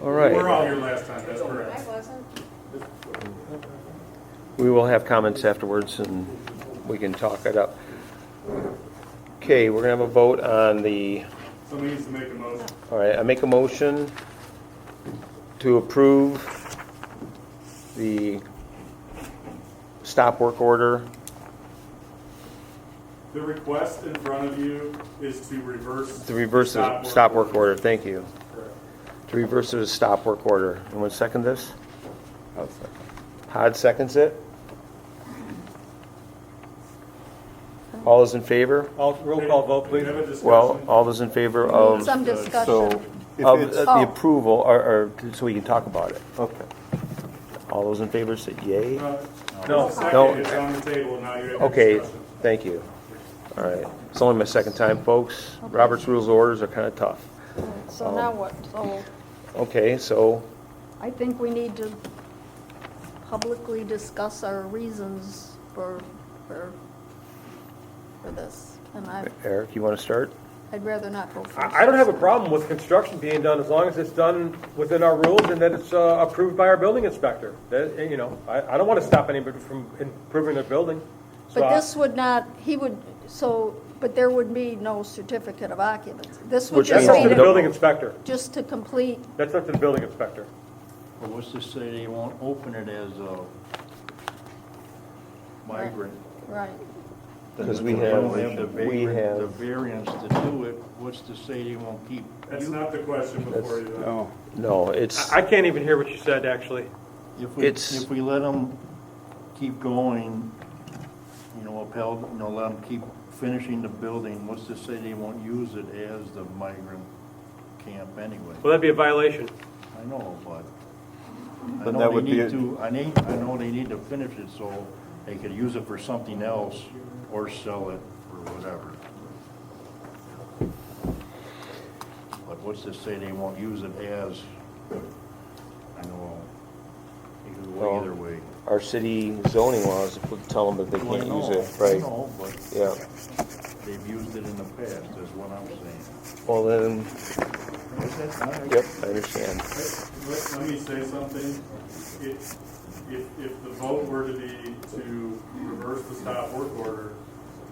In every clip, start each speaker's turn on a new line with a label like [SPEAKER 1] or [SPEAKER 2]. [SPEAKER 1] All
[SPEAKER 2] We We're
[SPEAKER 1] right,
[SPEAKER 2] all here last time, that's
[SPEAKER 3] I
[SPEAKER 2] correct.
[SPEAKER 3] wasn't.
[SPEAKER 1] we will have comments afterwards and we can talk it up. Okay, we're gonna have a vote on the,
[SPEAKER 2] Somebody needs to make a motion.
[SPEAKER 1] all right, I make a motion to approve the stop work order.
[SPEAKER 2] The request in front of you is to reverse.
[SPEAKER 1] To reverse the stop work order, thank you.
[SPEAKER 2] Correct.
[SPEAKER 1] To reverse the stop work order. Anyone second this? Hod seconds it? All those in favor?
[SPEAKER 4] All, roll call vote, please.
[SPEAKER 2] Have a discussion.
[SPEAKER 1] Well, all those in favor of, of
[SPEAKER 3] Some discussion.
[SPEAKER 5] So,
[SPEAKER 1] uh,
[SPEAKER 5] if it's,
[SPEAKER 1] the
[SPEAKER 3] Oh.
[SPEAKER 1] approval, or, or, so we can talk about it.
[SPEAKER 5] okay,
[SPEAKER 1] All those in favor say yay?
[SPEAKER 2] Uh,
[SPEAKER 4] No.
[SPEAKER 1] No.
[SPEAKER 2] Second, it's on the table, now you have a
[SPEAKER 1] Okay,
[SPEAKER 2] discussion.
[SPEAKER 1] thank you. All right. It's only my second time, folks. Robert's rules of orders are kind of tough.
[SPEAKER 3] So now what? So
[SPEAKER 1] Okay, so,
[SPEAKER 3] I think we need to publicly discuss our reasons for, for, for this. And I,
[SPEAKER 1] Eric, you want to start?
[SPEAKER 3] I'd rather not go first.
[SPEAKER 4] I, I don't have a problem with construction being done as long as it's done within our rules and that it's uh, approved by our building inspector. That, eh, you know, I, I don't want to stop anybody from improving their building. So
[SPEAKER 3] But
[SPEAKER 4] I-
[SPEAKER 3] this would not, he would, so, but there would be no certificate of occupancy. This would
[SPEAKER 1] Which
[SPEAKER 4] That's
[SPEAKER 3] just be,
[SPEAKER 4] up to the
[SPEAKER 1] means-
[SPEAKER 3] to-
[SPEAKER 4] building inspector.
[SPEAKER 3] just to complete,
[SPEAKER 4] That's up to the building inspector.
[SPEAKER 6] But what's to say they won't open it as a migrant?
[SPEAKER 3] right.
[SPEAKER 1] Because we
[SPEAKER 6] If they don't
[SPEAKER 1] have-
[SPEAKER 6] the
[SPEAKER 1] we
[SPEAKER 6] vagrant-
[SPEAKER 1] have-
[SPEAKER 6] The variance to do it, what's to say they won't keep?
[SPEAKER 2] That's not the question before you. though.
[SPEAKER 5] no.
[SPEAKER 1] No, it's,
[SPEAKER 4] I, I can't even hear what you said, actually.
[SPEAKER 6] If we,
[SPEAKER 1] It's-
[SPEAKER 6] if we let them keep going, you know, upheld, you know, let them keep finishing the building, what's to say they won't use it as the migrant camp anyway?
[SPEAKER 4] Well, that'd be a violation.
[SPEAKER 6] I know, but
[SPEAKER 5] Then
[SPEAKER 6] I know
[SPEAKER 5] that
[SPEAKER 6] they
[SPEAKER 5] would be
[SPEAKER 6] need
[SPEAKER 5] a-
[SPEAKER 6] to, I need, I know they need to finish it so they could use it for something else or sell it or whatever. But what's to say they won't use it as, I know, it could go
[SPEAKER 1] Well,
[SPEAKER 6] either way.
[SPEAKER 1] our city zoning laws tell them that they
[SPEAKER 6] Well, I
[SPEAKER 1] can't
[SPEAKER 6] know,
[SPEAKER 1] use it,
[SPEAKER 6] I
[SPEAKER 1] right?
[SPEAKER 6] know, but
[SPEAKER 1] Yeah.
[SPEAKER 6] they've used it in the past, is what I'm saying.
[SPEAKER 1] Well, then,
[SPEAKER 6] Is that not-
[SPEAKER 1] yep, I understand.
[SPEAKER 2] Let, let me say something. If, if, if the vote were to be to reverse the stop work order,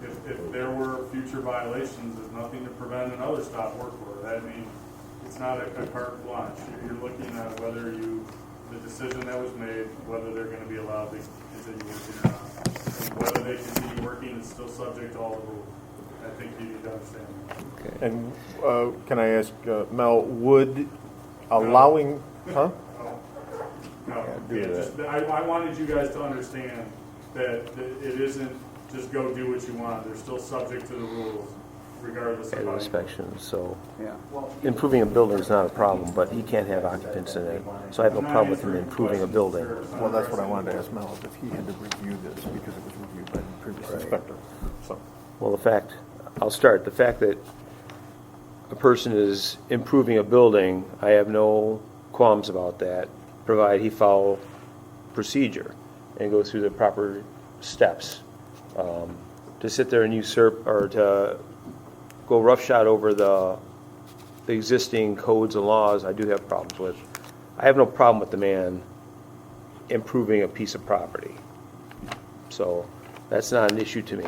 [SPEAKER 2] if, if there were future violations, there's nothing to prevent another stop work order. That means it's not a a carte blanche. You're- You're looking at whether you, the decision that was made, whether they're gonna be allowed to continue working or not. And Whether they continue working is still subject to all the rules. I think you need to understand. that.
[SPEAKER 5] And, uh, can I ask, uh, Mel, would allowing, huh?
[SPEAKER 2] No,
[SPEAKER 5] do
[SPEAKER 2] yeah, just, I, I wanted you guys to understand that, that it isn't just go do what you want, they're still subject to the rules regardless of
[SPEAKER 1] and
[SPEAKER 2] how you.
[SPEAKER 1] inspections, so. Improving a building is not a problem, but he can't have occupants in it, so I have no problem with him improving a building.
[SPEAKER 5] Well, that's what I wanted to ask Mel, is if he had to review this, because it was reviewed by the previous inspector, so.
[SPEAKER 1] Well, the fact, I'll start, the fact that a person is improving a building, I have no qualms about that, provided he follow procedure and go through the proper steps. Um, To sit there and usurp, or to go roughshod over the, the existing codes and laws, I do have problems with. I have no problem with the man improving a piece of property. So, that's not an issue to me.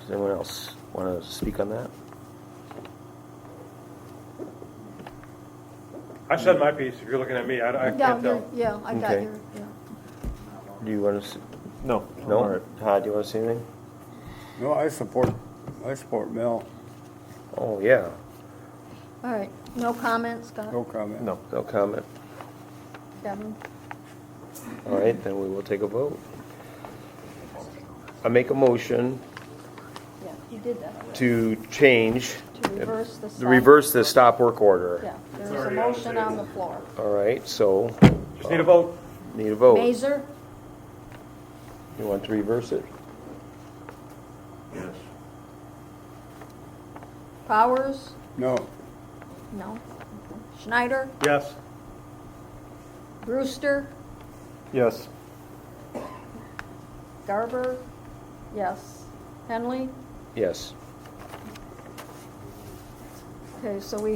[SPEAKER 1] Does anyone else want to speak on that?
[SPEAKER 4] I said my piece, if you're looking at me, I, I
[SPEAKER 3] Yeah,
[SPEAKER 4] can't
[SPEAKER 3] you're-
[SPEAKER 4] tell.
[SPEAKER 3] yeah, I got
[SPEAKER 1] Okay.
[SPEAKER 3] your, yeah.
[SPEAKER 1] Do you want to,
[SPEAKER 5] No.
[SPEAKER 1] no? Todd, do you want to say anything?
[SPEAKER 7] No, I support, I support Mel,
[SPEAKER 1] Oh, yeah,
[SPEAKER 3] All right, no comments, Scott?
[SPEAKER 7] no comment.
[SPEAKER 5] No.
[SPEAKER 1] no comment.
[SPEAKER 3] Kevin?
[SPEAKER 1] All right, then we will take a vote. I make a motion
[SPEAKER 3] Yeah, you did that. already.
[SPEAKER 1] to change,
[SPEAKER 3] To reverse the
[SPEAKER 1] to
[SPEAKER 3] stop.
[SPEAKER 1] reverse the stop work
[SPEAKER 3] Yeah,
[SPEAKER 1] order.
[SPEAKER 3] there's a
[SPEAKER 2] already on the
[SPEAKER 3] motion on
[SPEAKER 2] table.
[SPEAKER 3] the floor.
[SPEAKER 1] All right, so
[SPEAKER 4] Just need a vote.
[SPEAKER 1] need a vote.
[SPEAKER 3] Mazer?
[SPEAKER 1] You want to reverse it?
[SPEAKER 6] Yes.
[SPEAKER 3] Powers?
[SPEAKER 7] No.
[SPEAKER 3] No. Schneider?
[SPEAKER 4] Yes.
[SPEAKER 3] Brewster?
[SPEAKER 5] Yes.
[SPEAKER 3] Garber? Yes. Henley?
[SPEAKER 1] Yes.
[SPEAKER 3] Okay, so we